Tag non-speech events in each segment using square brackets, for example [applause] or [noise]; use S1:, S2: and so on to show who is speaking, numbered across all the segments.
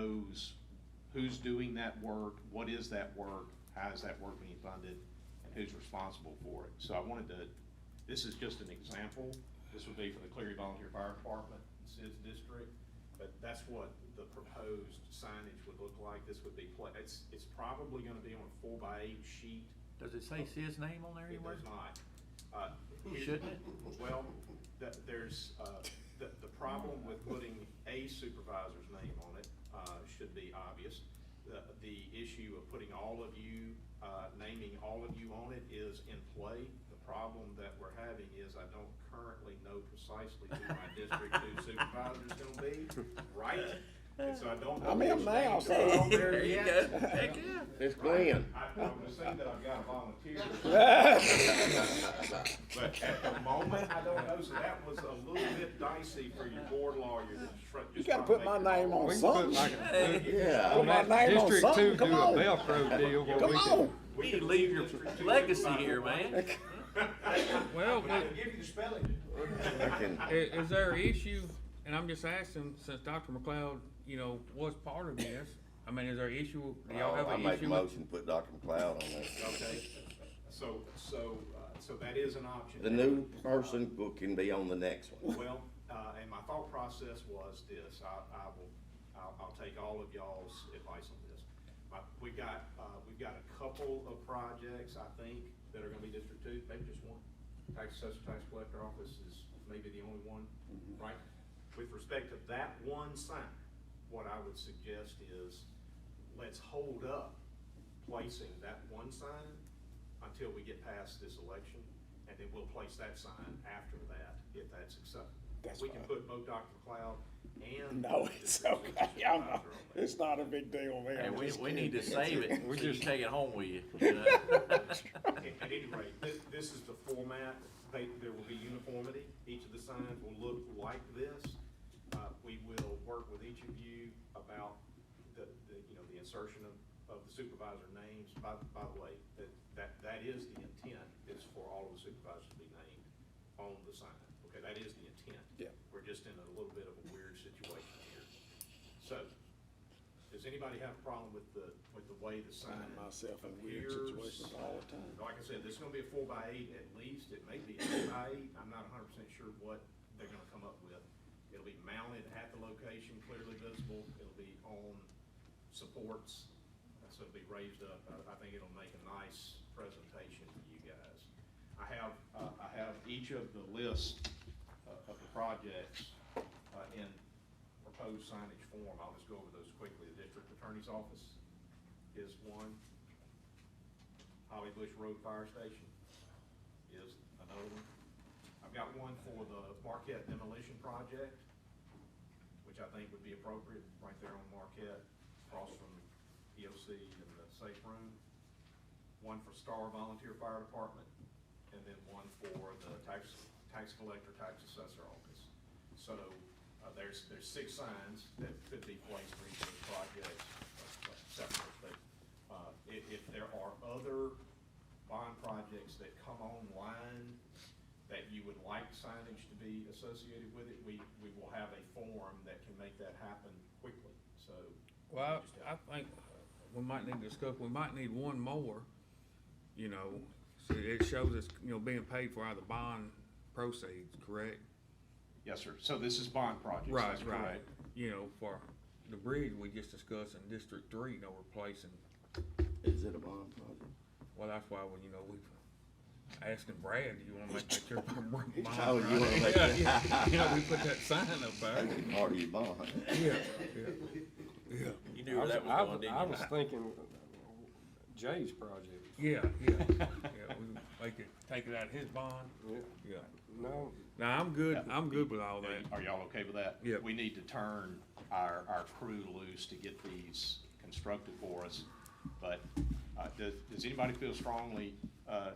S1: knows who's doing that work, what is that work, how is that work being funded, and who's responsible for it. So I wanted to, this is just an example. This would be for the Cleary Volunteer Fire Department, Sid's district, but that's what the proposed signage would look like. This would be, pla- it's, it's probably gonna be on a four by eight sheet.
S2: Does it say Sid's name on there
S1: It
S2: anywhere?
S1: does not. Uh, here-
S2: Shouldn't it?
S1: Well, th there's, uh, the, the problem with putting a supervisor's name on it, uh, should be obvious. The, the issue of putting all of you, uh, naming all of you on it is in play. The problem that we're having is I don't currently know precisely who my district two
S2: [laughs]
S1: supervisor is gonna be, right? And so I don't. know
S3: I'm in
S1: which
S3: now,
S1: names are
S3: so-
S1: on there
S2: There you
S1: yet.
S2: go. Heck, yeah.
S3: It's
S1: Right.
S3: Glenn.
S1: I, I'm gonna say that I've got a
S3: [laughs]
S1: volunteer.
S3: That's
S1: But at the moment, I [laughs] don't know, so that was a little bit dicey for your board lawyer to try.
S3: You gotta put my name on
S4: We can put like
S3: something.
S4: a,
S3: Yeah.
S4: on
S3: Put my
S4: that
S3: name on
S4: District Two,
S3: something,
S4: do a
S3: come on.
S4: Velcro deal where
S3: Come
S4: we can.
S3: on.
S2: We could leave your legacy here, man.
S5: Well,
S1: I
S5: i-
S1: can give you the spelling.
S5: i- is there an issue, and I'm just asking, since Dr. McLeod, you know, was part of this, I mean, is there an issue, do y'all have
S3: Oh, I
S5: an
S3: make a
S5: issue? with-
S3: motion, to put Dr. McLeod on there.
S1: Okay, so, so, uh, so that is an option.
S3: The new person who can be on the next one.
S1: Well, uh, and my thought process was this, I, I will, I'll, I'll take all of y'all's advice on this. My- We've got, uh, we've got a couple of projects, I think, that are gonna be District Two, maybe just one. Tax Assessor, Tax Collector Office is maybe the only one, right? With respect to that one sign, what I would suggest is, let's hold up placing that one sign until we get past this election, and then we'll place that sign after that, if that's acceptable.
S3: That's
S1: We can
S3: fine.
S1: put both Dr. McLeod and.
S3: No, it's okay. I'm not, it's not a big deal there.
S2: And
S3: I'm
S2: we,
S3: just
S2: we need to
S3: kidding.
S2: save it,
S5: We
S2: so you
S5: just-
S2: take it home with
S4: [laughs]
S2: you, you. know?
S1: At at any rate, this, this is the format, they, there will be uniformity, each of the signs will look like this. Uh, we will work with each of you about the, the, you know, the insertion of, of the supervisor names. By, by the way, that, that, that is the intent, is for all of the supervisors to be named on the sign. Okay, that is the intent.
S3: Yeah.
S1: We're just in a little bit of a weird situation here. So, does anybody have a problem with the, with the way the sign
S3: Find myself in weird
S1: appears?
S3: situations all the time.
S1: Like I said, this is gonna be a four by eight at least, it may be a eight by eight, I'm not hundred percent sure what they're gonna come up with. It'll be mounted at the location, clearly visible, it'll be on supports, uh, so it'll be raised up, I, I think it'll make a nice presentation for you guys. I have, uh, I have each of the list uh, of the projects, uh, in proposed signage form, I'll just go over those quickly, the district attorney's office is one. Holly Bush Road Fire Station is another one. I've got one for the Marquette demolition project, which I think would be appropriate, right there on Marquette, across from EOC and the safe room. One for Star Volunteer Fire Department, and then one for the tax, tax collector, tax assessor office. So, uh, there's, there's six signs that could be placed for each of the projects, uh, separate, but, uh, if, if there are other bond projects that come online that you would like signage to be associated with it, we, we will have a form that can make that happen quickly, so.
S5: Well, I I think we might need to discuss, we might need one more, you know, so it shows us, you know, being paid for out of the bond proceeds, correct?
S1: Yes, sir, so this is bond projects.
S5: Right, right, you know, for the bridge we just discussed in District Three, you know, replacing
S3: Is it a bond project?
S5: Well, that's why, when you know, we asking Brad, do you wanna make that your
S3: [laughs]
S5: bond?
S3: Oh, you wanna make
S5: Yeah,
S3: [laughs]
S5: yeah. You know, we put that sign up there.
S3: That'd be part of your bond.
S5: Yeah,
S2: You
S4: I
S2: knew where
S4: was,
S2: that was
S4: I
S2: going,
S4: was-
S2: didn't
S4: I
S2: you?
S4: was thinking Jay's project.
S5: yeah, yeah, yeah, we make it, take it out of his bond,
S4: Yeah.
S5: yeah.
S4: No,
S5: Now, I'm good, I'm good with all that.
S1: Are y'all okay with that?
S5: Yeah.
S1: We need to turn our, our crew loose to get these constructed for us. But, uh, does, does anybody feel strongly, uh,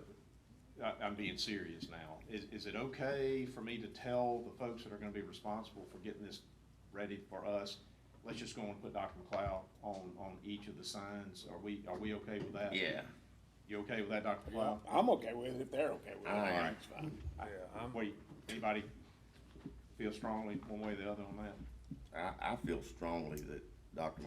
S1: I, I'm being serious now. Is, is it okay for me to tell the folks that are gonna be responsible for getting this ready for us? Let's just go and put Dr. McLeod on, on each of the signs. Are we, are we okay with that?
S3: Yeah.
S1: You okay with that, Dr. McLeod?
S3: Well, I'm okay with it if they're okay with it.
S1: I am.
S3: It's fine.
S5: Yeah, I'm,
S1: Wait, anybody feel strongly one way or the other on that?
S3: I, I feel strongly that Dr.